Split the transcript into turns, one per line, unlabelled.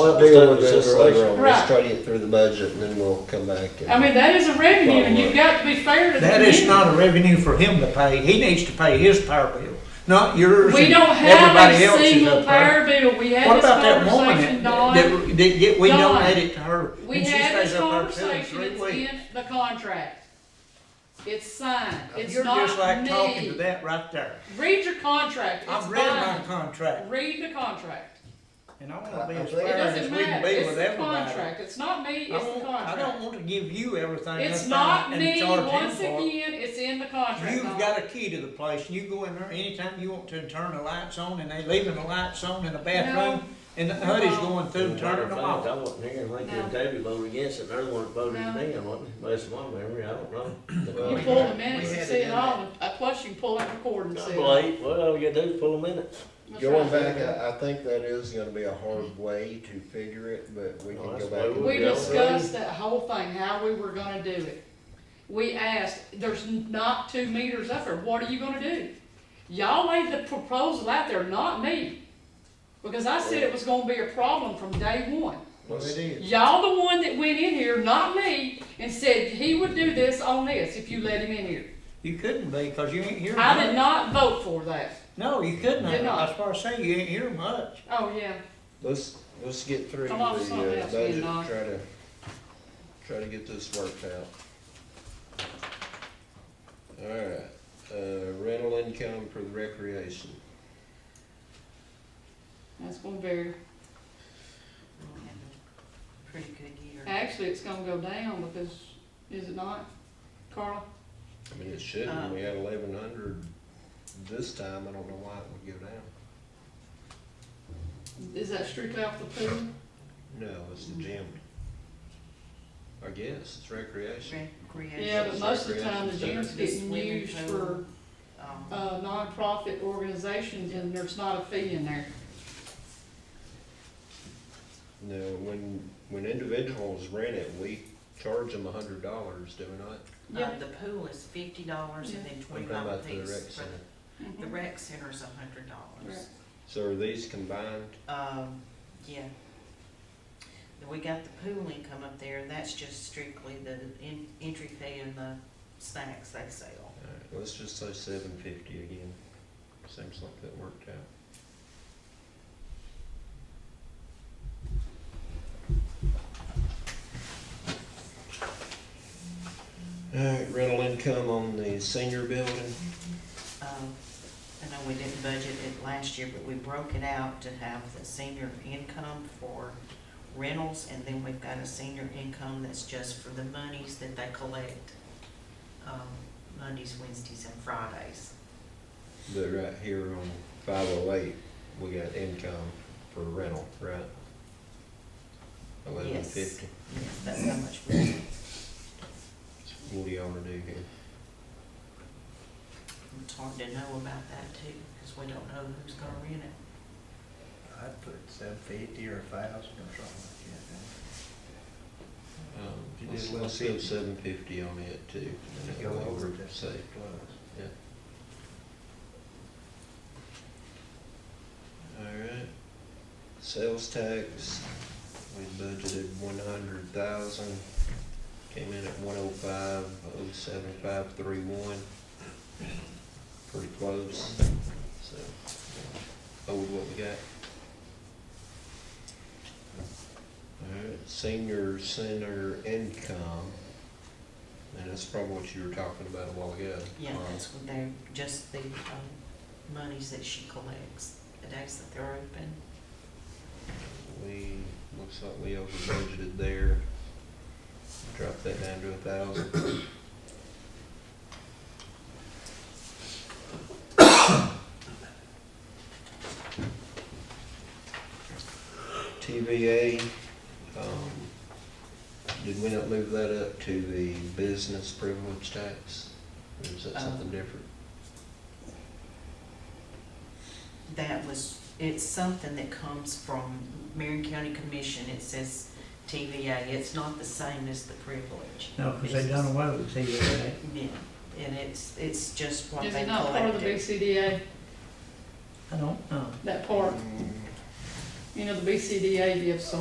We'll
Just
deal
let-
with
just
that
let
later
her-
on.
Right.
Let's try to get through the budget and then we'll come back. and-
I mean, that is a revenue, and you've got to be fair to the
That is
community.
not a revenue for him to pay. He needs to pay his power bill, not yours.
We
and
don't have
everybody
a
else's
single
up there.
power bill, we
What
had this
about that woman
conversation,
that,
Don,
that, that get- we
Dawn.
donated to her?
we
and she
had
stays
this
up there two and three
conversation, it's
weeks.
in the contract. It's signed, it's
Uh, You're just like
not
talking to
me.
that right there.
Read your contract, it's
I've read my
binding,
contract,
read the contract,
and I wanna be
I- I
as
think-
it
fair as
doesn't
we can
matter,
be
it's
with
the
everybody.
contract, it's not me,
I
it's the
won't- I don't
contract.
want to give you everything.
It's
up
not
and- and
me,
charge him
once
for it.
again, it's in the contract,
You've
Don.
got a key to the place, and you go in there anytime you want to and turn the lights on, and they leaving the lights on in the bathroom, and the hoodie's
No.
going through, turning
Matter of
them
fact,
off.
I wasn't here, and Lincoln and
No.
Davy voted against it, they're the ones that voted
No.
it down, wasn't it? Based on my memory, I don't know.
You
Well,
pull the
We
minutes and
had
see
it
it
in
all, uh, plus you can pull it and record and see
I
it.
believe, well, all you gotta do is pull a minute.
That's
Going
right.
back, I, I think that is gonna be a hard way to figure it, but we can
Well,
go
that's
back.
the
and
way
We
Yeah.
discussed that whole thing, how we were gonna do it. We asked, there's not two meters up there, what are you gonna do? Y'all laid the proposal out there, not me. Because I said it was gonna be a problem from day one.
Well, it is.
Y'all the one that went in here, not me, and said he would do this on this if you let him in here.
You couldn't be, cause you ain't hearing
I did
much.
not vote for that.
No, you couldn't,
Did not.
that's why I say you ain't hearing much.
Oh, yeah.
Let's, let's get through the
Come on, something
uh,
else,
budget,
you know.
try to, try to get this worked out. Alright, uh, rental income for the recreation.
That's gonna vary.
Pretty good year.
Actually, it's gonna go down because, is it not, Carl?
I mean, it shouldn't,
Uh,
Um,
we had eleven hundred this time, I don't know why it would go down.
Is that strictly off the pool?
No, it's the gym. I guess, it's recreation.
Recreation.
Yeah, but most of the time, the gym's
This
getting
winter
used for,
pool. Um,
uh, nonprofit organizations, and there's not a fee in there.
No, when, when individuals rent it, we charge them a hundred dollars, do we not?
Yeah.
Uh, the pool is fifty dollars and then
I'm talking
twenty-five
about for the rec
apiece. for
center.
The
Mhm.
rec center's a hundred dollars.
So are these combined?
Um, yeah. Then We got the pool income up there, and that's just strictly the en- entry fee and the snacks they sell.
Alright, Uh, let's just say seven fifty again. Seems like that worked out. Alright, Uh, rental income on the senior building.
Um, I know we didn't budget it last year, but we broke it out to have the senior income for rentals, and then we've got a senior income that's just for the monies that they collect, um, Mondays, Wednesdays, and Fridays.
But right here on five oh eight, we got income for rental, right? Eleven
Yes.
fifty.
Yes, That's how much we,
What do y'all wanna do here?
it's hard to know about that too, because we don't know who's gonna rent it.
I'd put seven fifty or a thousand or something like that.
Um,
You did
let's,
well
let's give
fifty.
seven fifty on it too.
Just
and
go
that way
over
we're
it.
safe.
Plus.
Alright. Sales tax, we budgeted one hundred thousand, came in at one oh five, oh seven five three one. Pretty close, so, owed what we got. Alright, senior center income, and that's probably what you were talking about a while ago.
Yeah,
Carl.
that's what they're, just the, um, monies that she collects, the days that they're open.
We, looks like we over budgeted there. Drop that down to a thousand. TVA, um, did we not move that up to the business privilege tax? Or is that something
Um,
different?
That was, it's something that comes from Marion County Commission, it says TVA, it's not the same as the privilege.
No, cause they done away with the TVA.
Yeah, and it's, it's just what
Is
they
it not part of the
collected.
BCDA,
I don't know.
that part, you know, the BCDA gives so